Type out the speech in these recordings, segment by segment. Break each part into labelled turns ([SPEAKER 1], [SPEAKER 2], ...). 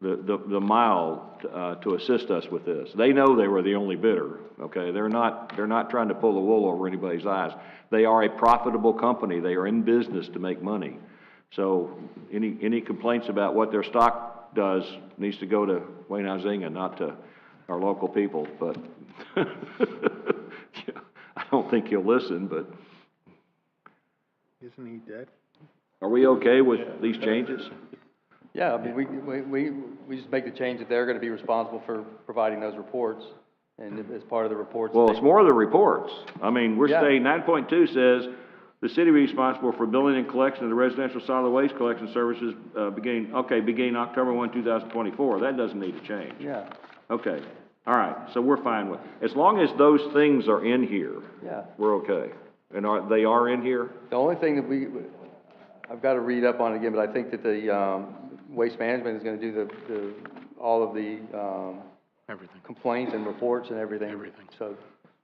[SPEAKER 1] the, the- the mile uh, to assist us with this. They know they were the only bidder, okay? They're not, they're not trying to pull the wool over anybody's eyes. They are a profitable company, they are in business to make money. So any, any complaints about what their stock does needs to go to Wayne Huizinga, not to our local people, but I don't think he'll listen, but
[SPEAKER 2] Isn't he dead?
[SPEAKER 1] are we okay with these changes?
[SPEAKER 3] Yeah, I mean, we, we, we, we just make the change that they're gonna be responsible for providing those reports, and if- as part of the reports.
[SPEAKER 1] Well,
[SPEAKER 3] they-
[SPEAKER 1] it's more of the reports. I mean, we're
[SPEAKER 3] Yeah.
[SPEAKER 1] saying nine point two says, the city be responsible for billing and collection of the residential solid waste collection services, uh, beginning, okay, beginning October one, two thousand twenty-four. That doesn't need to change.
[SPEAKER 3] Yeah,
[SPEAKER 1] Okay, all right, so we're fine with, as long as those things are in here,
[SPEAKER 3] yeah.
[SPEAKER 1] we're okay. And are, they are in here?
[SPEAKER 3] The only thing that we, I've gotta read up on it again, but I think that the, um, Waste Management is gonna do the, the, all of the, um,
[SPEAKER 2] Everything.
[SPEAKER 3] complaints and reports and everything.
[SPEAKER 2] Everything.
[SPEAKER 3] So,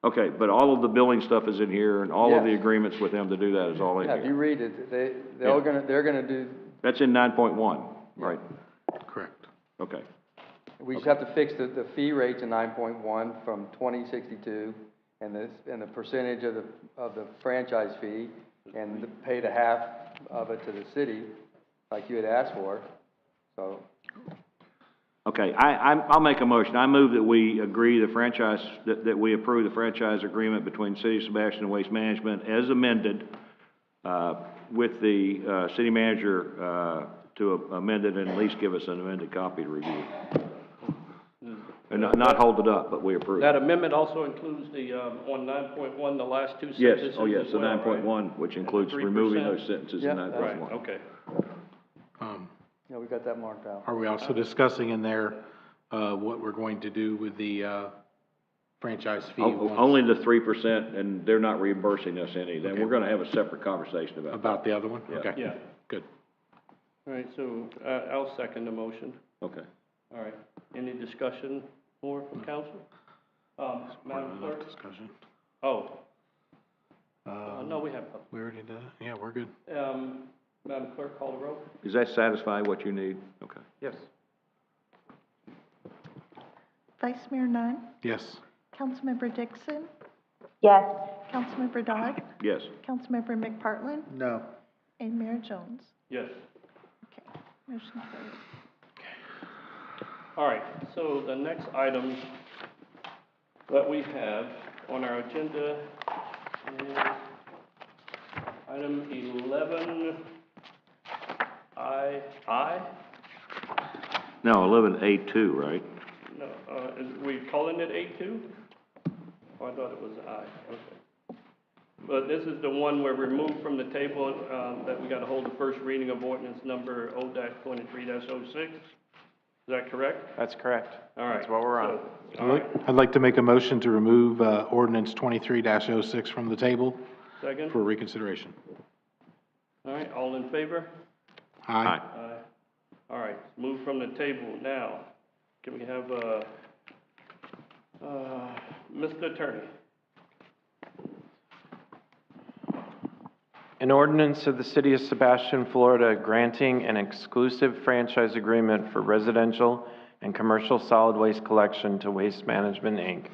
[SPEAKER 1] Okay, but all of the billing stuff is in here and all of the
[SPEAKER 3] Yes.
[SPEAKER 1] agreements with them to do that is all in
[SPEAKER 3] yeah, if you
[SPEAKER 1] here.
[SPEAKER 3] read it, they, they're all gonna, they're gonna do,
[SPEAKER 1] That's in nine point one, right?
[SPEAKER 2] Correct.
[SPEAKER 1] Okay,
[SPEAKER 3] we just have to fix the, the fee rate to nine point one from twenty sixty-two, and this, and the percentage of the, of the franchise fee, and the- pay the half of it to the city, like you had asked for, so.
[SPEAKER 1] okay, I, I'm, I'll make a motion. I move that we agree the franchise, that, that we approve the franchise agreement between City of Sebastian and Waste Management as amended, uh, with the, uh, city manager, uh, to amend it and at least give us an amended copy to review. And not, not hold it up, but we approve.
[SPEAKER 4] That amendment also includes the, um, on nine point one, the last two
[SPEAKER 1] Yes,
[SPEAKER 4] sentences as
[SPEAKER 1] oh, yes, the
[SPEAKER 4] well, right?
[SPEAKER 1] nine point one, which includes removing those sentences
[SPEAKER 3] Yeah,
[SPEAKER 1] in nine
[SPEAKER 4] Right,
[SPEAKER 1] point one.
[SPEAKER 4] okay.
[SPEAKER 2] Um,
[SPEAKER 3] Yeah, we got that marked out.
[SPEAKER 2] are we also discussing in there, uh, what we're going to do with the, uh, franchise fee? once-
[SPEAKER 1] Oh, Only the three percent, and they're not reimbursing us any, then we're gonna have a separate conversation about that.
[SPEAKER 2] About the other one? Okay.
[SPEAKER 4] Yeah.
[SPEAKER 2] Good.
[SPEAKER 4] All right, so, uh, I'll second the motion.
[SPEAKER 1] Okay.
[SPEAKER 4] All right, any discussion more from council? Um, Madam Clerk?
[SPEAKER 2] Discussion.
[SPEAKER 4] Oh, uh,
[SPEAKER 2] Uh,
[SPEAKER 4] no, we have,
[SPEAKER 2] we already did, that? yeah, we're good.
[SPEAKER 4] um, Madam Clerk, call the roll.
[SPEAKER 1] Does that satisfy what you need? Okay.
[SPEAKER 4] Yes.
[SPEAKER 5] Vice Mayor Nun,
[SPEAKER 2] Yes.
[SPEAKER 5] Councilmember Dixon,
[SPEAKER 6] Yes.
[SPEAKER 5] Councilmember Dodd,
[SPEAKER 1] Yes.
[SPEAKER 5] Councilmember McPartlin,
[SPEAKER 2] No.
[SPEAKER 5] and Mayor Jones.
[SPEAKER 4] Yes.
[SPEAKER 5] Okay, motion carried.
[SPEAKER 4] All right, so the next item that we have on our agenda is item eleven I, I?
[SPEAKER 1] No, eleven A two, right?
[SPEAKER 4] No, uh, is, we calling it A two? Oh, I thought it was I, okay. But this is the one where we moved from the table, um, that we gotta hold the first reading of ordinance number O twenty-three 6 Is that correct?
[SPEAKER 7] That's correct.
[SPEAKER 4] All right.
[SPEAKER 7] That's what we're on.
[SPEAKER 4] so-
[SPEAKER 2] I'd
[SPEAKER 4] All right,
[SPEAKER 2] like, I'd like to make a motion to remove, uh, ordinance twenty-three 6 from the table
[SPEAKER 4] second?
[SPEAKER 2] for reconsideration.
[SPEAKER 4] All right, all in favor?
[SPEAKER 2] Aye.
[SPEAKER 4] Aye. All right, move from the table now. Can we have, uh, uh, Mr. Attorney?
[SPEAKER 7] An ordinance of the City of Sebastian, Florida granting an exclusive franchise agreement for residential and commercial solid waste collection to Waste Management, Inc.,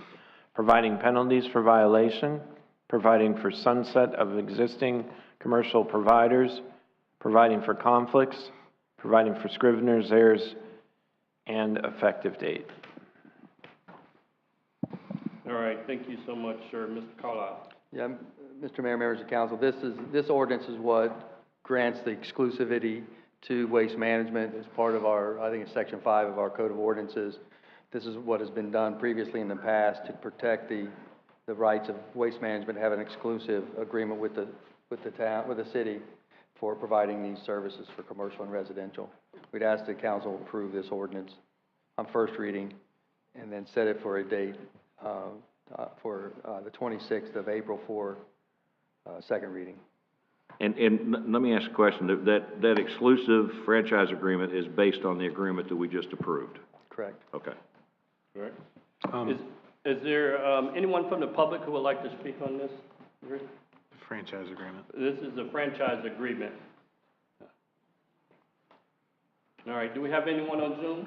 [SPEAKER 7] providing penalties for violation, providing for sunset of existing commercial providers, providing for conflicts, providing for scrivener's errors, and effective date.
[SPEAKER 4] All right, thank you so much, sir, Mr. Carlisle.
[SPEAKER 3] Yeah, m- Mr. Mayor, members of council, this is, this ordinance is what grants the exclusivity to waste management as part of our, I think it's section five of our code of ordinances. This is what has been done previously in the past to protect the, the rights of waste management, to have an exclusive agreement with the, with the town, with the city for providing these services for commercial and residential. We'd ask the council approve this ordinance on first reading and then set it for a date, uh, uh, for, uh, the twenty-sixth of April for, uh, second reading.
[SPEAKER 1] And, and l- let me ask a question, That- that, that exclusive franchise agreement is based on the agreement that we just approved?
[SPEAKER 3] Correct.
[SPEAKER 1] Okay.
[SPEAKER 4] Right.
[SPEAKER 2] Um,
[SPEAKER 4] Is, is there, um, anyone from the public who would like to speak on this?
[SPEAKER 2] franchise agreement.
[SPEAKER 4] This is a franchise agreement. All right, do we have anyone on Zoom?